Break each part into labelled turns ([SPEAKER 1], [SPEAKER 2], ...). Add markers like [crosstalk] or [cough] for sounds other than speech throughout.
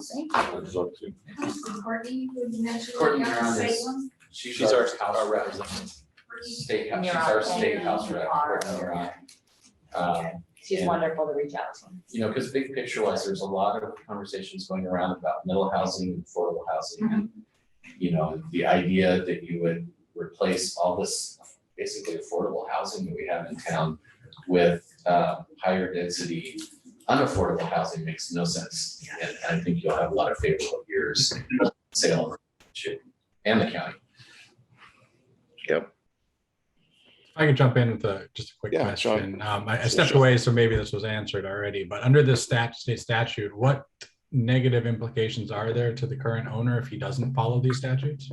[SPEAKER 1] Thank
[SPEAKER 2] It's up to-
[SPEAKER 1] you. Courtney, would you mention?
[SPEAKER 3] Courtney, you're on this.
[SPEAKER 1] Salem?
[SPEAKER 3] She's our house representative,
[SPEAKER 1] Courtney,
[SPEAKER 3] state house, she's
[SPEAKER 4] You're
[SPEAKER 3] our
[SPEAKER 4] on.
[SPEAKER 3] state house
[SPEAKER 4] You
[SPEAKER 3] rep,
[SPEAKER 4] are.
[SPEAKER 3] Courtney, you're on. Um,
[SPEAKER 4] She's
[SPEAKER 3] And-
[SPEAKER 4] wonderful to reach out to.
[SPEAKER 3] you know, because big picture wise, there's a lot of conversations going around about middle housing, and affordable housing. and You know, the idea that you would replace all this basically affordable housing that we have in town with uh higher density unaffordable housing makes no sense. And I think you'll have a lot of favorable years, in Salem, too, and the county.
[SPEAKER 5] I can jump in with a, just a quick
[SPEAKER 6] Yeah, sure.
[SPEAKER 5] question. Um, I I
[SPEAKER 6] Sure,
[SPEAKER 5] stepped
[SPEAKER 6] sure.
[SPEAKER 5] away, so maybe this was answered already, but under this stat, state statute, what negative implications are there to the current owner if he doesn't follow these statutes?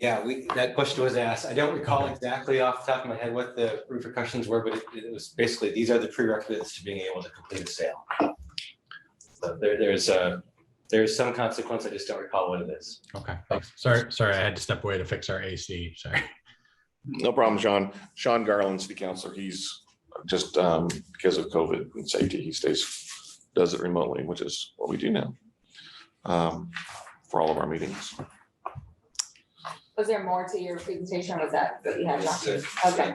[SPEAKER 7] Yeah, we, that question was asked. I don't recall exactly off the top of my head what the repercussions were, but it- it was basically, these are the prerequisites to being able to complete a sale. So there, there's a, there's some consequence. I just don't recall what it is.
[SPEAKER 5] Okay, thanks. Oh, Sorry, sorry, I had to step away to fix our AC, sorry.
[SPEAKER 6] No problem, Sean. Sean Garland, city councilor, he's just um because of COVID and safety, he stays, does it remotely, which is what we do now. Um, for all of our meetings.
[SPEAKER 4] Was there more to your presentation or was that what you had? Josh?
[SPEAKER 3] That's it.
[SPEAKER 4] Okay.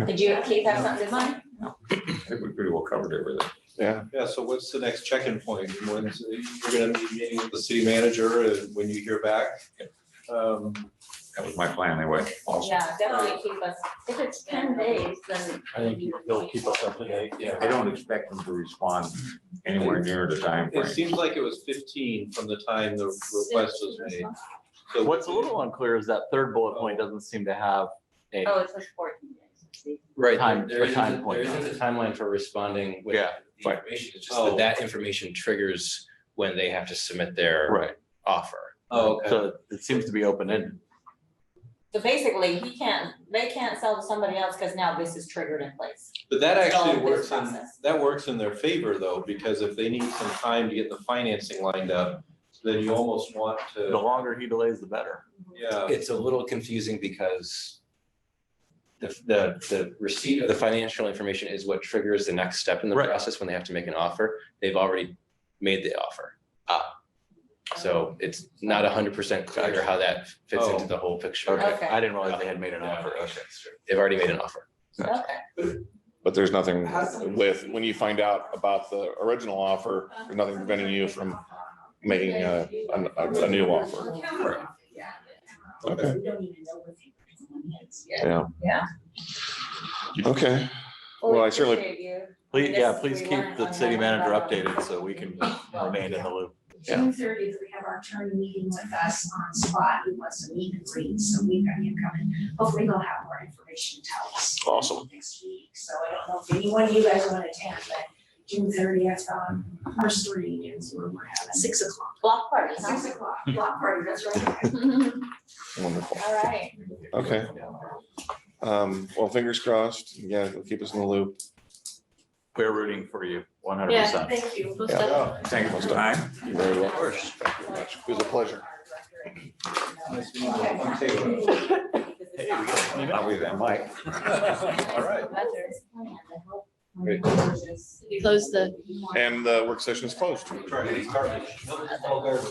[SPEAKER 6] Okay.
[SPEAKER 4] Did you, Keith, have something to say?
[SPEAKER 2] I think we pretty well covered everything.
[SPEAKER 6] Yeah,
[SPEAKER 8] Yeah, so what's the next check-in point? When you're gonna be meeting with the city manager and when you hear back? Um,
[SPEAKER 2] That was my plan anyway. Also,
[SPEAKER 4] Yeah, definitely keep us, if it's ten days, then.
[SPEAKER 2] I think
[SPEAKER 4] they'll keep us.
[SPEAKER 2] I don't expect them to respond anywhere near the
[SPEAKER 8] It
[SPEAKER 2] timeframe.
[SPEAKER 8] seems like it was fifteen from the time the request was made. So
[SPEAKER 9] What's a little unclear is that third bullet point doesn't seem to have a,
[SPEAKER 4] Oh, it's just fourteen days.
[SPEAKER 3] Right,
[SPEAKER 9] Time-
[SPEAKER 3] there
[SPEAKER 9] a
[SPEAKER 3] isn't,
[SPEAKER 9] time
[SPEAKER 3] a-
[SPEAKER 9] point.
[SPEAKER 3] there isn't a timeline for responding with
[SPEAKER 9] Yeah,
[SPEAKER 3] the information, it's just
[SPEAKER 8] Oh.
[SPEAKER 3] that that information triggers when they have to submit their
[SPEAKER 9] right,
[SPEAKER 3] offer.
[SPEAKER 8] Oh, okay.
[SPEAKER 9] so it seems to be open-ended.
[SPEAKER 4] So basically, he can't, they can't sell to somebody else because now this is triggered in place.
[SPEAKER 8] But that
[SPEAKER 4] It's all
[SPEAKER 8] actually
[SPEAKER 4] in this
[SPEAKER 8] works in,
[SPEAKER 4] process.
[SPEAKER 8] that works in their favor though, because if they need some time to get the financing lined up, then you almost want
[SPEAKER 9] The
[SPEAKER 8] to,
[SPEAKER 9] longer he delays, the better.
[SPEAKER 8] yeah.
[SPEAKER 3] It's a little confusing because the, the, the receipt of the financial information is what triggers the next step in the
[SPEAKER 9] Right.
[SPEAKER 3] process when they have to make an offer. They've already made the offer.
[SPEAKER 9] Ah.
[SPEAKER 3] up. So it's not hundred percent clear how that fits into
[SPEAKER 8] Oh.
[SPEAKER 3] the whole picture.
[SPEAKER 9] Okay,
[SPEAKER 4] Okay.
[SPEAKER 9] I didn't realize they had made an offer, okay.
[SPEAKER 3] They've already made an offer.
[SPEAKER 4] Okay.
[SPEAKER 6] but there's nothing with, when you find out about the original offer, there's nothing preventing you from making a, a- a new offer. Okay,
[SPEAKER 4] We don't even know what the is yet.
[SPEAKER 6] yeah.
[SPEAKER 4] Yeah.
[SPEAKER 6] Okay, Well, I certainly-
[SPEAKER 4] appreciate you.
[SPEAKER 9] Please, yeah,
[SPEAKER 4] This-
[SPEAKER 9] please
[SPEAKER 4] we
[SPEAKER 9] keep
[SPEAKER 4] learned
[SPEAKER 9] the
[SPEAKER 4] on
[SPEAKER 9] city
[SPEAKER 4] that
[SPEAKER 9] manager
[SPEAKER 4] about-
[SPEAKER 9] updated so we can remain in the loop.
[SPEAKER 1] June thirtieth, we have our attorney meeting with us on spot, he wants to meet and greet, so we've got him coming. Hopefully he'll have more information to tell us.
[SPEAKER 6] Awesome.
[SPEAKER 1] Next week, so I don't know if any one of you guys want to attend, but June thirtieth, um, our story is where we're having six o'clock.
[SPEAKER 4] Block party, huh?
[SPEAKER 1] Six o'clock, block party, that's right.
[SPEAKER 6] wonderful.
[SPEAKER 4] [laughs] All right.
[SPEAKER 6] Okay. Um, well, fingers crossed. Yeah, it'll keep us in the loop.
[SPEAKER 9] We're rooting for you, one hundred
[SPEAKER 1] Yeah,
[SPEAKER 9] percent.
[SPEAKER 1] thank you.
[SPEAKER 6] Yeah.
[SPEAKER 2] Thank you for the time.
[SPEAKER 6] You're very
[SPEAKER 4] Of
[SPEAKER 6] welcome.
[SPEAKER 4] course.
[SPEAKER 6] It was a pleasure.
[SPEAKER 8] Nice to meet you. I'm Taylor.
[SPEAKER 2] I'll be there, Mike.
[SPEAKER 9] [laughs]
[SPEAKER 8] All right.
[SPEAKER 3] Great.
[SPEAKER 4] Close the
[SPEAKER 6] And the work session is closed.
[SPEAKER 8] Sorry, it's garbage. No, it's all garbage.